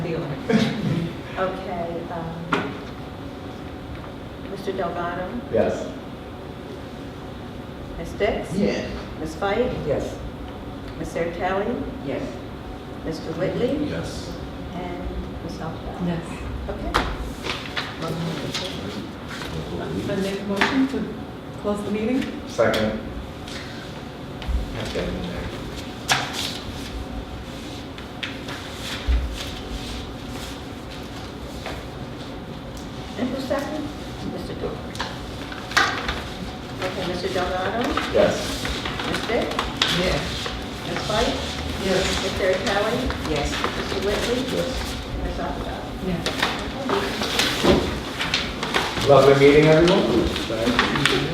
Okay, um, Mr. Delgado, Yes. Ms. Dix? Yes. Ms. Fight? Yes. Ms. Sertelli? Yes. Mr. Whitley? Yes. And Ms. Alford? Yes. Okay. Motion to adjourn. I make a motion to close the meeting? Second. Have that in there. And who's second? Mr. Dorr. Okay, Mr. Delgado, Yes. Ms. Dix, Yes. Ms. Fight, Yes. Ms. Sertelli, Yes. Mr. Whitley, Yes. and Ms. Alford. Yes. Lovely meeting, everyone. Thanks.